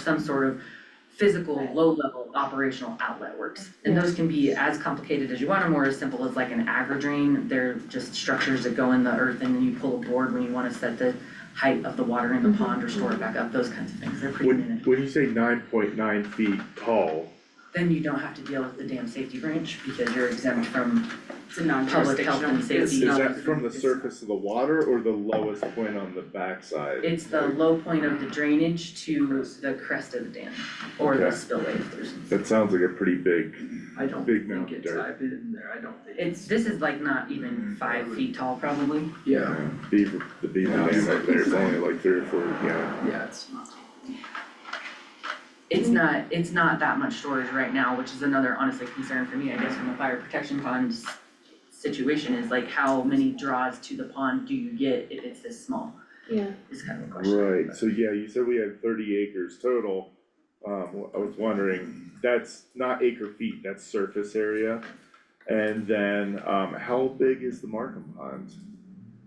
some sort of physical, Right. low-level operational outlet works. And Yeah. those can be as complicated as you want them or as simple as like an agri-drain. They're just structures that go in the earth and then you pull a board when you wanna set the height of the water in the Mhm, Mm-hmm. pond or store it back up, those kinds of things, they're pretty When, minute. when you say nine point nine feet tall, Then you don't have to deal with the dam safety branch because you're exempt from It's a public health non-jurisdictional, and it's safety. is that from the It's- surface of the water or the lowest point on the backside? It's the low point of the drainage to the crest of the dam or the Okay. spillway if there's. That sounds like a pretty big, I don't Big think mountain it's, dirt. I've been in there, I don't think It's, this is like not Mm-hmm. even five feet tall probably. Yeah, uh, beaver, the beaver Yeah, dam it's- up there is only like three or four, yeah. yeah, it's not. It's not, it's not that much storage right now, which is another honestly concern for me, I guess, from a fire protection pond s- situation is like how many draws to the pond do you get if it's this small, Yeah, is kind of a question. Right, so yeah, you said we had thirty acres total. Um, I was wondering, that's not acre feet, that's surface area. And then, um, how big is the Markham pond?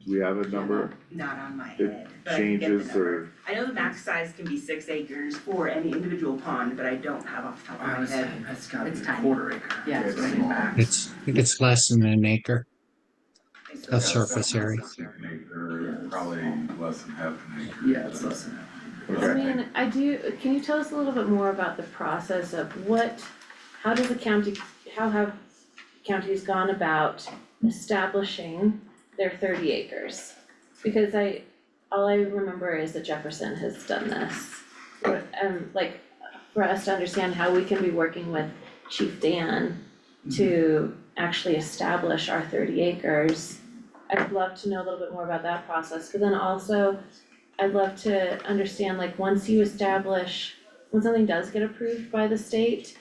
Do we have a number? not on my It head, but I can get the Changes number. or, I know the max size can be six acres for any individual pond, but I don't have off the top of my head. that's gotta It's tiny. acre. Yeah, it's It's tiny. small. It's, it's less than an acre It's of about surface area. An acre, probably less than half an acre. Yeah, it's less than I okay, mean, I do, can you tell us a little bit more about the process of what, how does the county, how have counties gone about establishing their thirty acres? Because I, all I remember is that Jefferson has done this. But, um, like, for us to understand how we can be working with Chief Dan to actually establish our thirty acres. I'd love to know a little bit more about that process, but then also I'd love to understand, like, once you establish, when something does get approved by the state,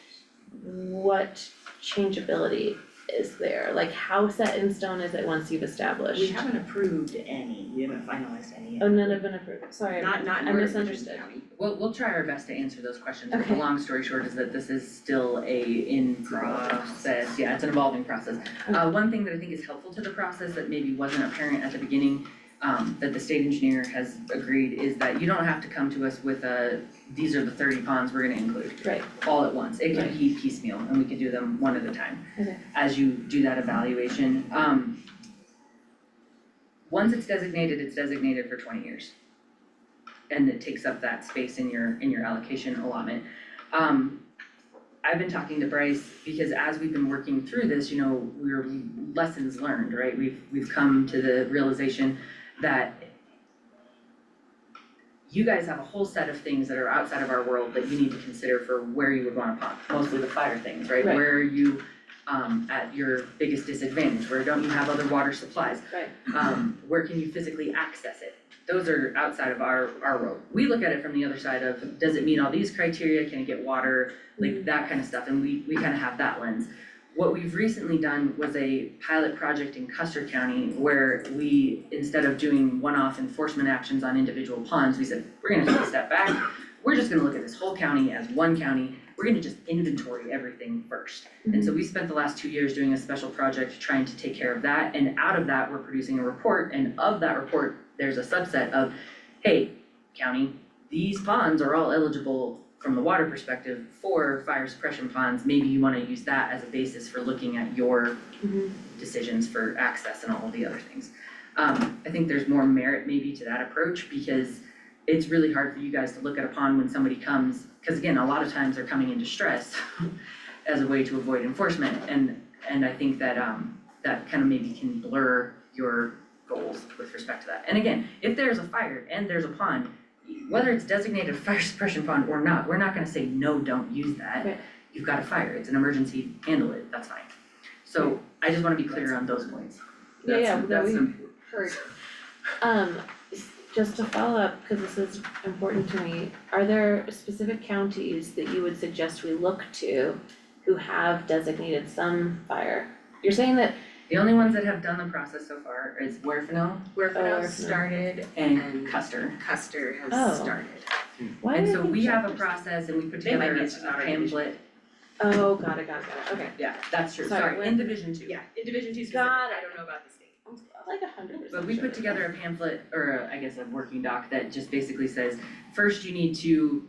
what changeability is there? Like, how set in stone is it once you've that. We established? haven't approved any, we haven't finalized any yet. Oh, none have been approved, sorry, Not, not in I Northern misunderstood. County. We'll, we'll try our best to answer those questions, but the Okay. long story short is that this is still a in process, yeah, it's an evolving process. Uh, one thing that I think is helpful to the process that maybe wasn't apparent at the beginning, um, that the state engineer has agreed is that you don't have to come to us with a, these are the thirty ponds we're gonna include. Right. All at once, it can Right. be piecemeal and we can do them one at a time. Okay. As you do that evaluation, um. Once it's designated, it's designated for twenty years and it takes up that space in your, in your allocation allotment. Um, I've been talking to Bryce, because as we've been working through this, you know, we're lessons learned, right? We've, we've come to the realization that you guys have a whole set of things that are outside of our world that you need to consider for where you would wanna pop, mostly the fire things, right? Right. Where are you, um, at your biggest disadvantage, where don't you have other water supplies? Right. um, where can you physically access it? Those are outside of our, our road. We look at it from the other side of, does it meet all these criteria, can it get water, like that kind of stuff, and we, we kind of have that lens. What we've recently done was a pilot project in Custer County where we, instead of doing one-off enforcement actions on individual ponds, we said, we're gonna take a step back. We're just gonna look at this whole county as one county, we're gonna just inventory everything first. And so we spent the last two years doing a special project trying to take care of that, and out of that, we're producing a report, and of that report, there's a subset of, hey, county, these ponds are all eligible from the water perspective for fire suppression ponds, maybe you wanna use that as a basis for looking at your Mhm. decisions for access and all of the other things. Um, I think there's more merit maybe to that approach because it's really hard for you guys to look at a pond when somebody comes, cause again, a lot of times they're coming in distress as a way to avoid enforcement and, and I think that, um, that kind of maybe can blur your goals with respect to that. And again, if there's a fire and there's a pond, whether it's designated fire suppression pond or not, we're not gonna say, no, don't use that. Right. You've got a fire, it's an emergency, handle it, that's fine. So I just wanna be clear on those points. Yeah, yeah, That's, no, that's we- important. Heard. Um, s- just to follow up, cause this is important to me, are there specific counties that you would suggest we look to who have designated some fire? You're saying that, The only ones that have done the process so far is Werfenau Where Oh, Fidel started and And- Custer. Custer has Oh. started. why And did I so think we have a Jefferson? process and we put They might together mention that a already. pamphlet, Oh, got it, got it, got it, okay, yeah, that's true, Sorry, sorry, when- in Division Two. Yeah, in Division Two specific, Got I it. don't know about the state. I'm like a hundred percent But we sure. put together a pamphlet, or a- I guess a working doc that just basically says, first you need to